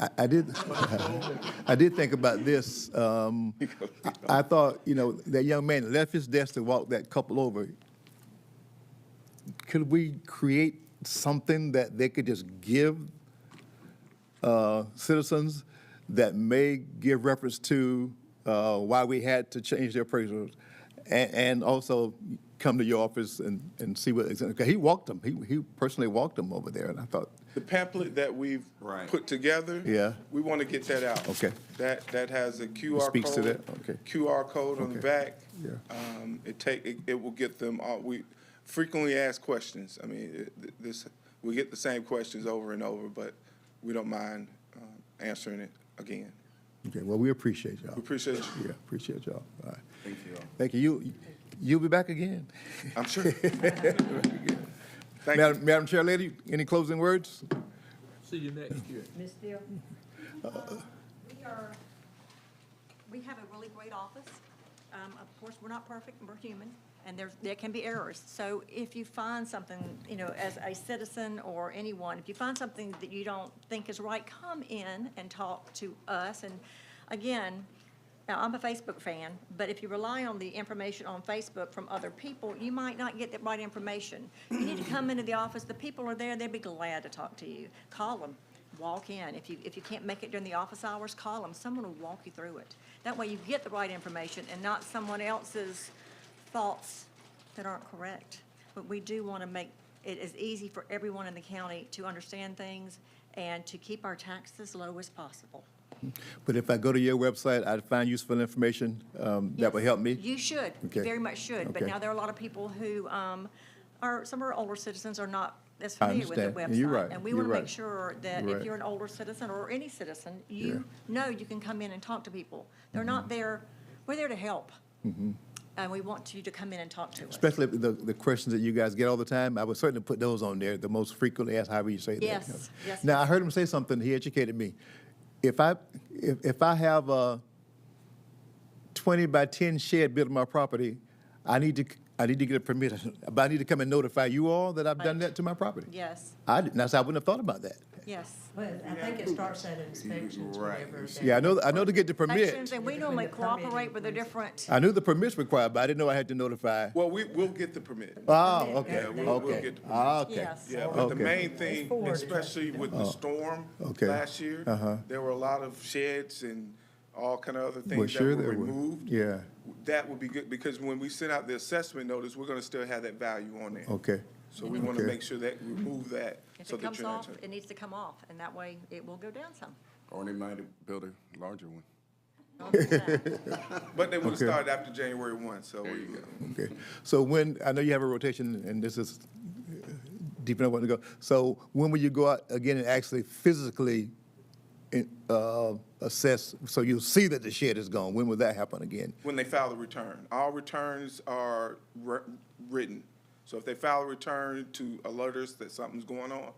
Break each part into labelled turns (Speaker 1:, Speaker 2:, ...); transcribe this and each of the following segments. Speaker 1: I, I did, I did think about this. Um, I I thought, you know, that young man left his desk to walk that couple over. Could we create something that they could just give uh, citizens that may give reference to uh, why we had to change their appraisals, and, and also come to your office and, and see what, 'cause he walked them, he, he personally walked them over there, and I thought,
Speaker 2: The pamphlet that we've
Speaker 3: Right.
Speaker 2: put together.
Speaker 1: Yeah.
Speaker 2: We want to get that out.
Speaker 1: Okay.
Speaker 2: That, that has a QR code.
Speaker 1: speaks to that? Okay.
Speaker 2: QR code on the
Speaker 1: Okay.
Speaker 2: back.
Speaker 1: Yeah.
Speaker 2: Um, it take, it, it will get them all, we frequently asked questions. I mean, it- th- this, we get the same questions over and over, but we don't mind, um, answering it again.
Speaker 1: okay, well, we appreciate y'all.
Speaker 2: We appreciate you.
Speaker 1: Yeah, appreciate y'all. All right.
Speaker 3: Thank you all.
Speaker 1: Thank you. You, you'll be back again.
Speaker 2: I'm sure. Thank you.
Speaker 1: Madam, Madam Chair Lady, any closing words?
Speaker 4: See you next year.
Speaker 5: Ms. Steele?
Speaker 6: We are, we have a really great office. Um, Of course, we're not perfect, we're human, and there's, there can be errors. So if you find something, you know, as a citizen or anyone, if you find something that you don't think is right, come in and talk to us. And again, now, I'm a Facebook fan, but if you rely on the information on Facebook from other people, you might not get the right information. You need to come into the office, the people are there, they'd be glad to talk to you. Call them, walk in. If you, if you can't make it during the office hours, call them, someone will walk you through it. That way you get the right information and not someone else's thoughts that aren't correct. But we do want to make it as easy for everyone in the county to understand things and to keep our taxes low as possible.
Speaker 1: But if I go to your website, I'd find useful information um, that will
Speaker 6: Yes.
Speaker 1: help me.
Speaker 6: You should,
Speaker 1: Okay.
Speaker 6: you very much should, but
Speaker 1: Okay.
Speaker 6: now there are a lot of people who um, are, some are older citizens are not as familiar with the
Speaker 1: understand.
Speaker 6: website.
Speaker 1: You're right.
Speaker 6: And we
Speaker 1: You're
Speaker 6: want to make
Speaker 1: right.
Speaker 6: sure that
Speaker 1: You're right.
Speaker 6: if you're an older citizen or any citizen, you know you can come in and talk to people. They're not
Speaker 1: Mm-hmm.
Speaker 6: there, we're there to help. And we want you to come in and talk to us.
Speaker 1: Especially the, the questions that you guys get all the time, I would certainly put those on there, the most frequently asked, however you say that.
Speaker 6: Yes, yes.
Speaker 1: Now, I heard him say something, he educated me. If I, if, if I have a twenty by ten shed built on my property, I need to, I need to get a permit, but I need to come and notify you all that I've done
Speaker 6: Right.
Speaker 1: that to my property.
Speaker 6: Yes,
Speaker 1: I, didn't- that's, I wouldn't have thought about that.
Speaker 6: yes.
Speaker 5: Well, I think it starts at inspections
Speaker 3: Right.
Speaker 5: whenever. they-
Speaker 1: Yeah, I know, I know to get the
Speaker 6: Sections,
Speaker 1: permit.
Speaker 6: And we normally cooperate with the different,
Speaker 1: I knew the permit's required, but I didn't know I had to notify.
Speaker 2: Well, we, we'll get the permit.
Speaker 1: Oh, okay,
Speaker 5: Yeah,
Speaker 2: we'll- we'll
Speaker 1: okay,
Speaker 2: get the permit.
Speaker 1: Ah, okay.
Speaker 6: yes.
Speaker 2: Yeah, but the
Speaker 1: Okay. Oh,
Speaker 2: main thing,
Speaker 5: forward.
Speaker 2: especially with the storm
Speaker 1: okay. Uh-huh.
Speaker 2: last year, there were a lot of sheds and all kind of other
Speaker 1: Well,
Speaker 2: things that
Speaker 1: sure
Speaker 2: were
Speaker 1: there were.
Speaker 2: removed.
Speaker 1: Yeah,
Speaker 2: That would be good, because when we send out the assessment notice, we're gonna still have that value on there.
Speaker 1: okay.
Speaker 2: So we wanna
Speaker 1: Okay.
Speaker 2: make sure that we remove that,
Speaker 6: if
Speaker 2: so
Speaker 6: it
Speaker 2: that
Speaker 6: comes
Speaker 2: you're not.
Speaker 6: off, it needs to come off, and that way it will go down some.
Speaker 3: Or they might have built a larger one.
Speaker 2: But they would've
Speaker 1: Okay.
Speaker 2: started after January one, so there you go.
Speaker 1: Okay, so when, I know you have a rotation, and this is uh, deep enough one to go, so when will you go out again and actually physically uh, assess, so you'll see that the shed is gone, when will that happen again?
Speaker 2: When they file the return. All returns are wr- written. So if they file a return to alert us that something's going on,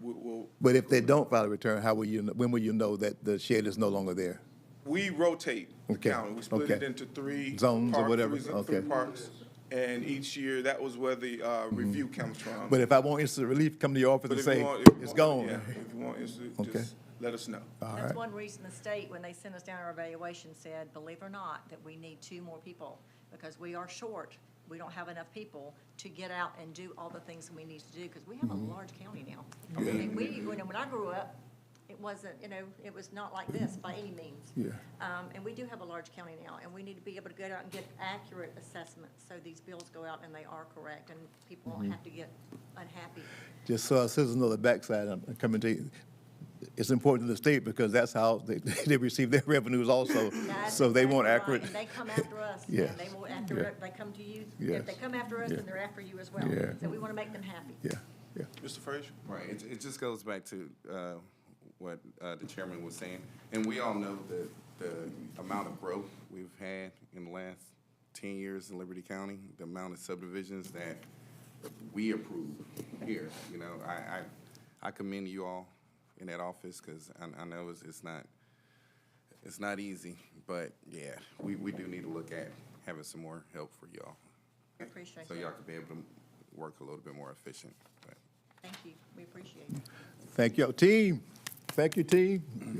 Speaker 2: we- we'll,
Speaker 1: But if they don't file a return, how will you, kn- when will you know that the shed is no longer there?
Speaker 2: We rotate the
Speaker 1: Okay,
Speaker 2: county. We split it
Speaker 1: okay.
Speaker 2: into three.
Speaker 1: Zones or
Speaker 2: park-
Speaker 1: whatever,
Speaker 2: three- three
Speaker 1: okay. Mm-hmm.
Speaker 2: parks, and each year, that was where the uh, review comes from.
Speaker 1: But if I want instant relief, come to your office
Speaker 2: But
Speaker 1: and
Speaker 2: if
Speaker 1: say,
Speaker 2: you want- if you
Speaker 1: it's
Speaker 2: want-
Speaker 1: gone.
Speaker 2: yeah, If you want, it's-
Speaker 1: Okay. Uh,
Speaker 2: just let us know.
Speaker 6: That's one reason the state, when they sent us down our evaluation, said, believe it or not, that we need two more people because we are short. We don't have enough people to get out and do all the things that we need to do because we have a large county now. I mean, we, when, when I grew up, it wasn't, you know, it was not like this by any means.
Speaker 1: Yeah.
Speaker 6: Um, and we do have a large county now and we need to be able to get out and get accurate assessments. So these bills go out and they are correct and people don't have to get unhappy.
Speaker 1: Just so our citizens know the backside, I'm coming to you. It's important to the state because that's how they, they receive their revenues also.
Speaker 6: That's
Speaker 1: So they want
Speaker 6: exactly right,
Speaker 1: accurate.
Speaker 6: And they come after us,
Speaker 1: Yes.
Speaker 6: and they will after,
Speaker 1: Yeah.
Speaker 6: it- they come to you,
Speaker 1: Yes.
Speaker 6: if they come after us,
Speaker 1: Yeah.
Speaker 6: then they're after you as well.
Speaker 1: Yeah.
Speaker 6: So we want to make them happy.
Speaker 1: Yeah, yeah.
Speaker 2: Mr. Frazier?
Speaker 3: Right, it, it just goes back to, uh, what, uh, the chairman was saying, and we all know the, the amount of growth we've had in the last ten years in Liberty County, the amount of subdivisions that we approve here, you know, I, I, I commend you all in that office, cause I, I know it's, it's not, it's not easy, but yeah, we, we do need to look at having some more help for y'all,
Speaker 6: We appreciate
Speaker 3: so
Speaker 6: that.
Speaker 3: y'all can be able to work a little bit more efficient, but.
Speaker 6: Thank you. We appreciate it.
Speaker 1: Thank you, team. Thank you, team.